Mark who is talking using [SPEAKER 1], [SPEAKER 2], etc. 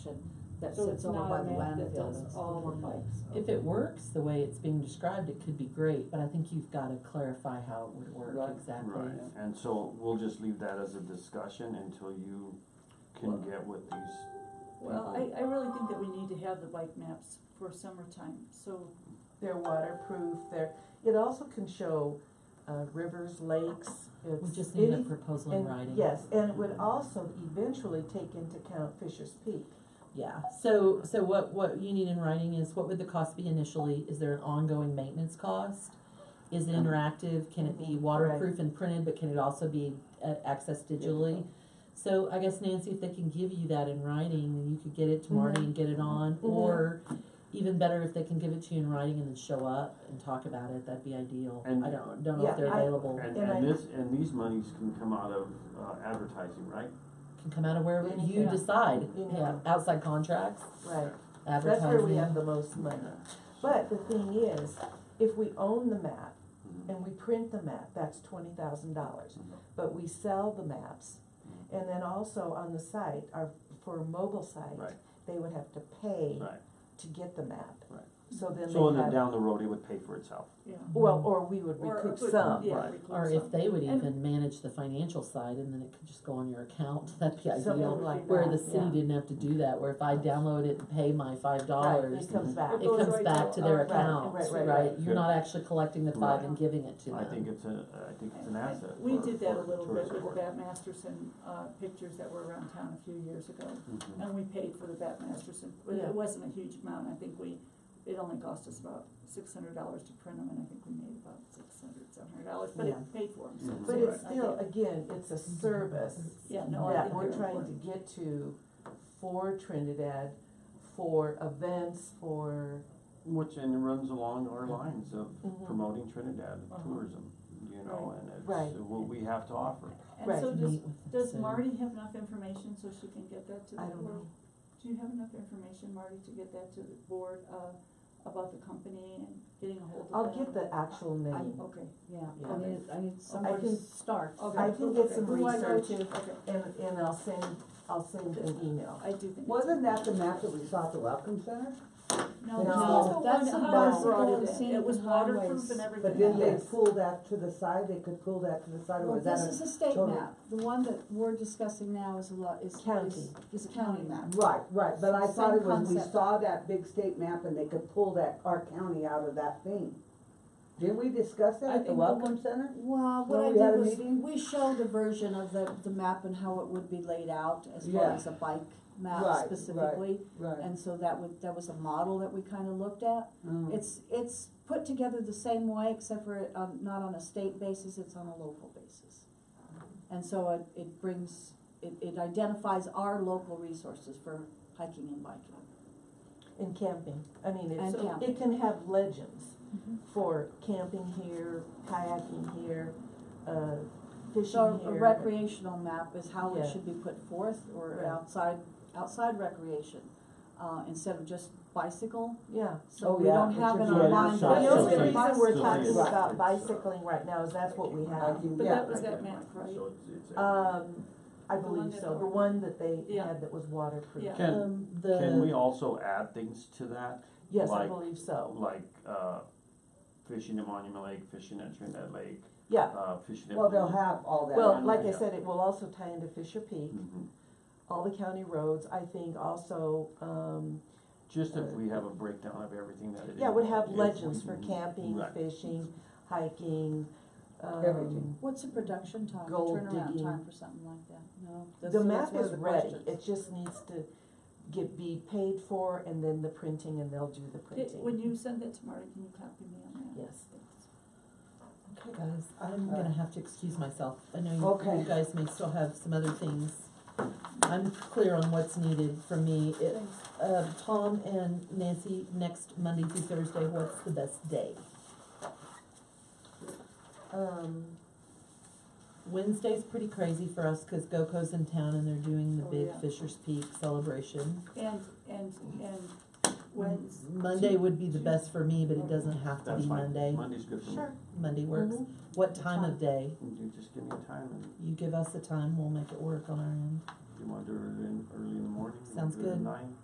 [SPEAKER 1] that
[SPEAKER 2] So
[SPEAKER 1] sits
[SPEAKER 2] it's
[SPEAKER 1] over
[SPEAKER 2] not
[SPEAKER 1] by
[SPEAKER 2] a
[SPEAKER 1] the
[SPEAKER 2] map that
[SPEAKER 1] landfill
[SPEAKER 2] does
[SPEAKER 1] that's
[SPEAKER 2] all
[SPEAKER 3] Mm-hmm.
[SPEAKER 2] the pipes.
[SPEAKER 4] If it works the way it's being described, it could be great, but I think you've gotta clarify how it would work
[SPEAKER 2] Right.
[SPEAKER 4] exactly.
[SPEAKER 5] Right, and so we'll just leave that as a discussion until you
[SPEAKER 2] Well-
[SPEAKER 5] can get with these.
[SPEAKER 2] Well, I, I really think that we need to have the bike maps for summertime, so,
[SPEAKER 3] They're waterproof, they're, it also can show, uh, rivers, lakes,
[SPEAKER 4] We
[SPEAKER 3] it's
[SPEAKER 4] just need a
[SPEAKER 3] any.
[SPEAKER 4] proposal in
[SPEAKER 3] and-
[SPEAKER 4] writing.
[SPEAKER 3] Yes, and it would also eventually take into account Fisher's Peak.
[SPEAKER 4] Yeah, so, so what, what you need in writing is, what would the cost be initially, is there an ongoing maintenance cost? Is it interactive, can it be
[SPEAKER 3] Mhm.
[SPEAKER 4] waterproof and printed, but can it also be, uh, accessed digitally? So I guess Nancy, if they can give you that in writing, then you could get it to Marty and get it on,
[SPEAKER 3] Mhm.
[SPEAKER 4] or even better, if they can give it to you in writing and then show up and talk about it, that'd be ideal. I
[SPEAKER 5] And-
[SPEAKER 4] don't, don't know if
[SPEAKER 3] Yeah,
[SPEAKER 4] they're
[SPEAKER 3] I-
[SPEAKER 4] available,
[SPEAKER 5] And,
[SPEAKER 3] And I-
[SPEAKER 5] and this, and these monies can come out of uh, advertising, right?
[SPEAKER 4] can come out of wherever you
[SPEAKER 3] Anything.
[SPEAKER 4] decide,
[SPEAKER 3] Anything.
[SPEAKER 4] yeah, outside contracts,
[SPEAKER 3] Right, that's
[SPEAKER 4] advertising.
[SPEAKER 3] where we have the most money. But the thing is, if we own the map
[SPEAKER 5] Mhm.
[SPEAKER 3] and we print the map, that's twenty thousand dollars. But we sell the maps, and then also on the site, our, for a mobile site,
[SPEAKER 5] Right.
[SPEAKER 3] they would have to pay
[SPEAKER 5] Right,
[SPEAKER 3] to get the map.
[SPEAKER 5] Right.
[SPEAKER 3] So then
[SPEAKER 5] so and
[SPEAKER 3] they have,
[SPEAKER 5] then down the road, it would pay for itself.
[SPEAKER 2] yeah.
[SPEAKER 3] well, or we would
[SPEAKER 2] Or
[SPEAKER 3] recoup
[SPEAKER 2] put-
[SPEAKER 3] some.
[SPEAKER 2] yeah,
[SPEAKER 5] right.
[SPEAKER 2] recoup
[SPEAKER 4] Or if
[SPEAKER 2] some.
[SPEAKER 4] they would
[SPEAKER 2] And-
[SPEAKER 4] even manage the financial side and then it could just go on your account, that'd be
[SPEAKER 3] Something
[SPEAKER 4] ideal.
[SPEAKER 3] like
[SPEAKER 4] Where
[SPEAKER 3] that,
[SPEAKER 4] the city
[SPEAKER 3] yeah.
[SPEAKER 4] didn't have to do that, where if I download it and pay my
[SPEAKER 3] Right,
[SPEAKER 4] five dollars,
[SPEAKER 3] it comes back.
[SPEAKER 4] it comes
[SPEAKER 2] right
[SPEAKER 4] back
[SPEAKER 2] to-
[SPEAKER 4] to their
[SPEAKER 3] oh, right,
[SPEAKER 4] account,
[SPEAKER 3] right, right,
[SPEAKER 4] right?
[SPEAKER 3] right.
[SPEAKER 4] You're not actually collecting the five
[SPEAKER 5] Right.
[SPEAKER 4] and giving it to
[SPEAKER 5] I
[SPEAKER 4] them.
[SPEAKER 5] think it's a, I think it's an
[SPEAKER 2] I- I-
[SPEAKER 5] asset.
[SPEAKER 2] We
[SPEAKER 5] for-
[SPEAKER 2] did that a
[SPEAKER 5] for
[SPEAKER 2] little bit
[SPEAKER 5] tourist
[SPEAKER 2] with the
[SPEAKER 5] board.
[SPEAKER 2] Bat Masterson, uh, pictures that were around town a few years ago.
[SPEAKER 5] Mhm.
[SPEAKER 2] And we paid for the Bat Masterson, but
[SPEAKER 3] Yeah.
[SPEAKER 2] it wasn't a huge amount, I think we, it only cost us about six hundred dollars to print them, and I think we made about six hundred, seven hundred dollars, but it
[SPEAKER 3] Yeah.
[SPEAKER 2] paid for them, so.
[SPEAKER 5] Mhm.
[SPEAKER 3] But
[SPEAKER 2] it's-
[SPEAKER 3] it's still, again, it's a service
[SPEAKER 2] Yeah, no, I
[SPEAKER 3] that
[SPEAKER 2] think
[SPEAKER 3] we're
[SPEAKER 2] they're
[SPEAKER 3] trying to
[SPEAKER 2] important.
[SPEAKER 3] get to for Trinidad, for events, for,
[SPEAKER 5] Which, and it runs along our lines of
[SPEAKER 3] Mhm.
[SPEAKER 5] promoting Trinidad
[SPEAKER 2] Uh-huh.
[SPEAKER 5] tourism, you know, and
[SPEAKER 3] Right.
[SPEAKER 5] it's what we have to offer.
[SPEAKER 2] And so
[SPEAKER 3] Right.
[SPEAKER 2] does,
[SPEAKER 4] Meet with
[SPEAKER 2] does
[SPEAKER 4] them.
[SPEAKER 2] Marty have enough information so she can get that to the
[SPEAKER 3] I
[SPEAKER 2] board?
[SPEAKER 3] don't know.
[SPEAKER 2] Do you have enough information, Marty, to get that to the board, uh, about the company and getting a hold of them?
[SPEAKER 3] I'll get the actual name.
[SPEAKER 2] Okay,
[SPEAKER 1] Yeah,
[SPEAKER 3] Yeah.
[SPEAKER 1] I need, I need somewhere to
[SPEAKER 3] can-
[SPEAKER 1] start.
[SPEAKER 2] okay.
[SPEAKER 3] I can get
[SPEAKER 2] okay.
[SPEAKER 3] some
[SPEAKER 1] Who do I go
[SPEAKER 3] research and,
[SPEAKER 2] Okay,
[SPEAKER 3] and I'll send, I'll send an email.
[SPEAKER 2] I do think. it's-
[SPEAKER 6] Wasn't that the map that we saw at the Welcome Center?
[SPEAKER 2] No,
[SPEAKER 3] No,
[SPEAKER 2] that's
[SPEAKER 1] that's
[SPEAKER 2] the
[SPEAKER 1] the
[SPEAKER 2] one
[SPEAKER 3] ones
[SPEAKER 2] Howard
[SPEAKER 3] that
[SPEAKER 2] brought
[SPEAKER 1] go
[SPEAKER 2] it
[SPEAKER 1] on
[SPEAKER 2] in.
[SPEAKER 1] scenic
[SPEAKER 2] It was waterproof
[SPEAKER 1] highways.
[SPEAKER 2] and everything.
[SPEAKER 6] But didn't they
[SPEAKER 3] Yes.
[SPEAKER 6] pull that to the side? They could pull that to the side, or
[SPEAKER 1] Well,
[SPEAKER 6] was that
[SPEAKER 1] this
[SPEAKER 6] a?
[SPEAKER 1] is a state
[SPEAKER 6] total-
[SPEAKER 1] map, the one that we're discussing now is a lot, is.
[SPEAKER 3] County.
[SPEAKER 1] is- Is a county map.
[SPEAKER 6] Right, right, but I thought it
[SPEAKER 1] Same
[SPEAKER 6] was, we
[SPEAKER 1] concept.
[SPEAKER 6] saw that big state map and they could pull that, our county out of that thing. Didn't we discuss that
[SPEAKER 2] I
[SPEAKER 6] at
[SPEAKER 2] think the
[SPEAKER 6] the Welcome Center?
[SPEAKER 1] Well, what
[SPEAKER 6] Well,
[SPEAKER 1] I
[SPEAKER 6] we had
[SPEAKER 1] did
[SPEAKER 6] a
[SPEAKER 1] was,
[SPEAKER 6] meeting.
[SPEAKER 1] we showed a version of the, the map and how it would be laid out as far
[SPEAKER 6] Yeah.
[SPEAKER 1] as a bike map
[SPEAKER 6] Right, right.
[SPEAKER 1] specifically.
[SPEAKER 6] Right.
[SPEAKER 1] And so that would, that was a model that we kinda looked at.
[SPEAKER 6] Mm.
[SPEAKER 1] It's, it's put together the same way, except for it, um, not on a state basis, it's on a local basis. And so it, it brings, it, it identifies our local resources for hiking and biking.
[SPEAKER 3] And camping, I mean, it's,
[SPEAKER 1] And camping. Mm-hmm.
[SPEAKER 3] it can have legends for camping here, kayaking here, uh, fishing
[SPEAKER 1] So a
[SPEAKER 3] here.
[SPEAKER 1] recreational map is how
[SPEAKER 3] Yeah.
[SPEAKER 1] it should be put forth, or
[SPEAKER 3] Right.
[SPEAKER 1] outside, outside recreation, uh, instead of just bicycle.
[SPEAKER 3] Yeah.
[SPEAKER 1] So
[SPEAKER 6] Oh,
[SPEAKER 1] we
[SPEAKER 6] yeah,
[SPEAKER 1] don't
[SPEAKER 6] it
[SPEAKER 1] have
[SPEAKER 6] should
[SPEAKER 1] an
[SPEAKER 5] be a
[SPEAKER 1] online.
[SPEAKER 5] shop.
[SPEAKER 3] The
[SPEAKER 5] Yeah,
[SPEAKER 3] only
[SPEAKER 5] so
[SPEAKER 1] version of
[SPEAKER 5] it's-
[SPEAKER 3] reason we're
[SPEAKER 1] bicycle.
[SPEAKER 5] so
[SPEAKER 3] talking
[SPEAKER 5] it's-
[SPEAKER 3] about
[SPEAKER 5] it's, uh,
[SPEAKER 3] bicycling right now is that's what we
[SPEAKER 6] I
[SPEAKER 3] have.
[SPEAKER 6] think,
[SPEAKER 2] But
[SPEAKER 6] yeah.
[SPEAKER 2] that was that map, right?
[SPEAKER 5] So it's, it's.
[SPEAKER 3] Um, I
[SPEAKER 2] The one
[SPEAKER 3] believe
[SPEAKER 2] that-
[SPEAKER 3] so, the one that they
[SPEAKER 2] Yeah.
[SPEAKER 3] had that was waterproof.
[SPEAKER 2] Yeah.
[SPEAKER 5] Can-
[SPEAKER 4] Um,
[SPEAKER 5] Can we
[SPEAKER 4] the,
[SPEAKER 5] also add things to that,
[SPEAKER 3] Yes, I
[SPEAKER 5] Like-
[SPEAKER 3] believe so.
[SPEAKER 5] like, uh, fishing at Monument Lake, fishing at Trinidad Lake,
[SPEAKER 3] Yeah,
[SPEAKER 5] uh, fishing at.
[SPEAKER 6] Well, they'll have all that.
[SPEAKER 3] well,
[SPEAKER 5] Yeah.
[SPEAKER 3] like I said, it will also tie into Fisher Peak,
[SPEAKER 5] Mhm.
[SPEAKER 3] all the county roads, I think also, um,
[SPEAKER 5] Just if we have a breakdown of everything that it is.
[SPEAKER 3] yeah, would have
[SPEAKER 5] if we-
[SPEAKER 3] legends for camping,
[SPEAKER 5] Mm-hmm. Right.
[SPEAKER 3] fishing, hiking, um.
[SPEAKER 6] Everything.
[SPEAKER 1] What's the production time, the
[SPEAKER 3] Gold
[SPEAKER 1] turnaround
[SPEAKER 3] digging.
[SPEAKER 1] time for something like that? No. that's-
[SPEAKER 3] The
[SPEAKER 1] that's
[SPEAKER 3] map
[SPEAKER 1] one of
[SPEAKER 3] is
[SPEAKER 1] the
[SPEAKER 3] ready,
[SPEAKER 1] questions.
[SPEAKER 3] it just needs to get, be paid for and then the printing and they'll do the
[SPEAKER 2] Did- When
[SPEAKER 3] printing.
[SPEAKER 2] you send that to Marty, can you copy me on that?
[SPEAKER 3] Yes.
[SPEAKER 2] Thanks.
[SPEAKER 4] okay guys, I'm gonna have to excuse myself, I know you,
[SPEAKER 6] Okay.
[SPEAKER 4] you guys may still have some other things. I'm clear on what's needed from me, it, uh, Tom and Nancy, next Monday through Thursday, what's the best day?
[SPEAKER 3] Um,
[SPEAKER 4] Wednesday's pretty crazy for us because GoCo's in town and they're doing the
[SPEAKER 2] Oh,
[SPEAKER 4] big
[SPEAKER 2] yeah.
[SPEAKER 4] Fisher's Peak celebration.
[SPEAKER 2] And, and, and when's,
[SPEAKER 4] Monday would be the
[SPEAKER 2] Tues-
[SPEAKER 4] best for me, but it doesn't have to
[SPEAKER 5] That's
[SPEAKER 4] be
[SPEAKER 5] fine.
[SPEAKER 4] Monday.
[SPEAKER 5] Monday's good for me.
[SPEAKER 3] sure.
[SPEAKER 4] Monday works.
[SPEAKER 3] Mhm.
[SPEAKER 4] What time of day?
[SPEAKER 5] You just give me a time and
[SPEAKER 4] You give us the time, we'll make it work on our end.
[SPEAKER 5] you want to do it in early in the morning? you wanna
[SPEAKER 4] Sounds
[SPEAKER 5] do it at
[SPEAKER 4] good.
[SPEAKER 5] Nine?